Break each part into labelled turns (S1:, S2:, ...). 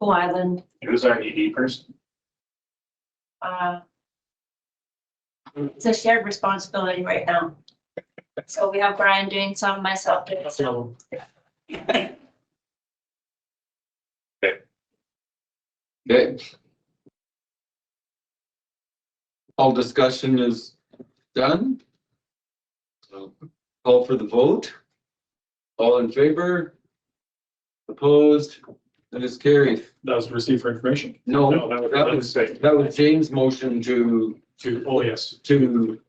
S1: Cool Island,
S2: Who's our ED person?
S1: uh, it's a shared responsibility right now. So we have Brian doing some, myself doing some.
S3: Okay. All discussion is done. So Call for the vote. All in favor? Opposed? That is carried.
S2: That was received for information.
S3: No,
S2: No, that was-
S3: Oh, that
S2: that was
S3: was,
S2: safe.
S3: that was James' motion to,
S2: To, oh, yes.
S3: to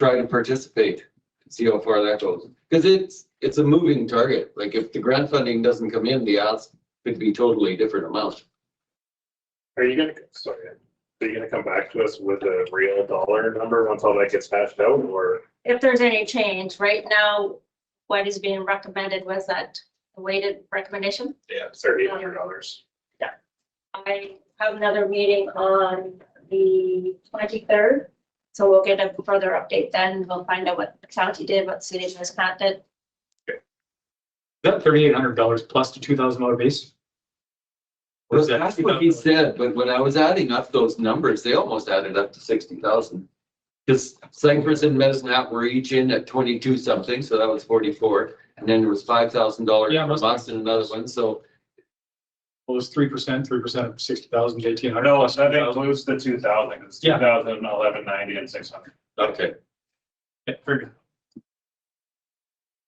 S3: try to participate. See how far that goes. Because it's, it's a moving target. Like if the grant funding doesn't come in, the odds could be totally different amounts.
S4: Are you gonna, sorry, are you gonna come back to us with a real dollar number once all that gets hashed out or?
S1: If there's any change, right now, what is being recommended was that weighted recommendation.
S4: Yeah. Thirty hundred dollars.
S1: I have another meeting on the twenty-third, so we'll get a further update then. We'll find out what the county did, what city was not did.
S2: That thirty-eight hundred dollars plus the two thousand dollar base? Or
S3: Well,
S2: is that
S3: that's what he
S2: $2,000?
S3: said, but when I was adding up those numbers, they almost added up to sixty thousand. Because Cypress and Mesnat were each in at twenty-two something, so that was forty-four, and then there was five thousand dollars
S2: Yeah,
S3: from
S2: must-
S3: us and another one, so.
S2: Well, it's three percent, three percent of sixty thousand, eighteen hundred.
S4: No, that includes the two thousand, it's
S2: Yeah.
S4: two thousand, eleven ninety and six hundred.
S3: Okay.
S2: Figured.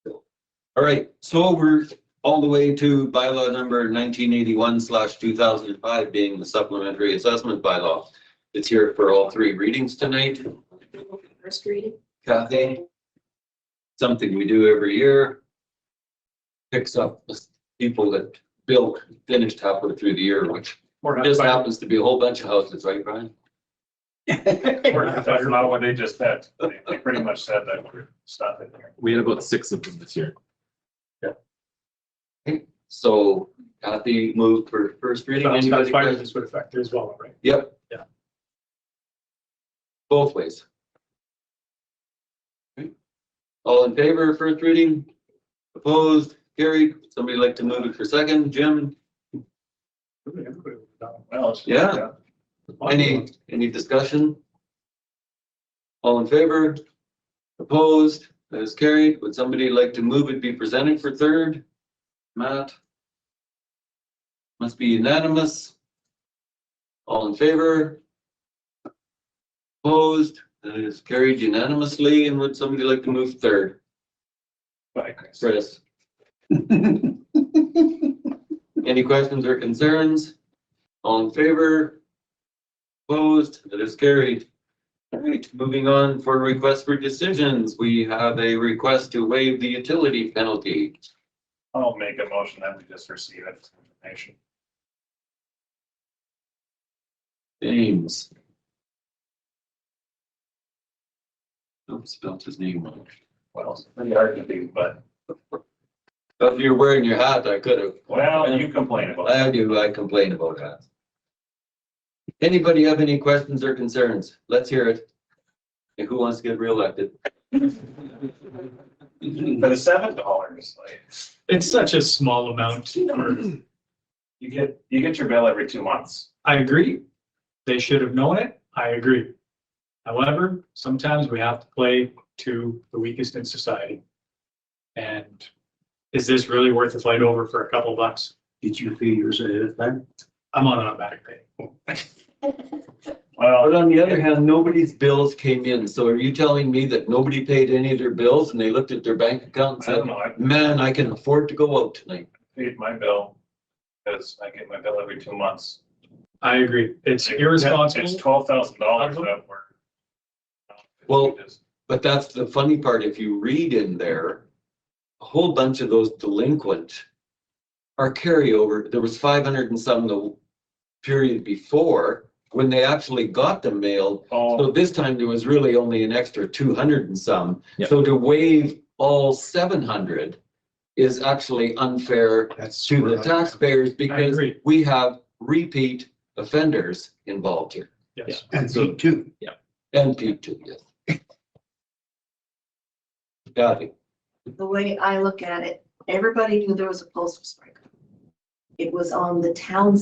S3: All right, so we're all the way to bylaw number nineteen eighty-one slash two thousand and five being the supplementary assessment bylaw. It's here for all three readings tonight.
S1: First reading.
S3: Kathy. Something we do every year. Picks up the people that built, finished halfway through the year, which
S2: More than
S3: just
S2: half-
S3: happens to be a whole bunch of houses, right, Brian?
S4: That's not what they just said. They- They pretty much said that we're stopping there.
S5: We had about six of them this year.
S3: So Kathy moved for first reading.
S2: That's that's
S3: Anybody
S2: fire
S3: present?
S2: this would affect as well, right?
S3: Yep.
S2: Yeah.
S3: Both ways. Okay. All in favor, first reading? Opposed, carried? Somebody like to move it for second? Jim,
S2: Everybody would have done
S4: Well, it's- uh,
S3: Yeah.
S4: yeah.
S2: it.
S3: Any, any discussion? All in favor? Opposed? That is carried. Would somebody like to move it be presented for third? Matt? Must be unanimous. All in favor? Opposed? That is carried unanimously. And would somebody like to move third?
S4: Bye, Chris.
S3: Chris? Any questions or concerns? All in favor? Opposed? That is carried. All right, moving on for requests for decisions. We have a request to waive the utility penalty.
S4: I'll make a motion that we just receive it. information.
S3: James. Don't spell his name wrong.
S4: Well, it's pretty hard to do, but,
S3: If you're wearing your hat, I could have.
S4: well, you complain about it.
S3: I do, I complain about that. Anybody have any questions or concerns? Let's hear it. And who wants to get reelected?
S4: But it's seven dollars, like,
S2: It's such a small amount. for-
S4: you get, you get your bill every two months.
S2: I agree. They should have known it. I agree. However, sometimes we have to play to the weakest in society. And is this really worth the flight over for a couple bucks?
S6: Did you pay yours ahead of time?
S2: I'm on automatic pay.
S4: Well,
S3: But on the other hand, nobody's bills came in. So are you telling me that nobody paid any of their bills and they looked at their bank account
S4: I don't
S3: and
S4: know, I
S3: said, man, I can afford to go out tonight?
S4: paid my bill, because I get my bill every two months.
S2: I agree. It's
S4: It's
S2: irresponsible.
S4: twelve thousand dollars that we're.
S3: Well- But that's the funny part, if you read in there, a whole bunch of those delinquent are carryover, there was five hundred and some the period before, when they actually got them mailed. So
S4: Oh,
S3: this time there was really only an extra two hundred and some,
S5: Yeah.
S3: so to waive all seven hundred is actually unfair
S6: That's
S3: to the taxpayers because
S2: agree.
S3: we have repeat offenders involved here,
S2: Yes.
S6: And so too.
S3: and P two, yes. Got it.
S7: the way I look at it, everybody knew there was a postal strike. It was on the town's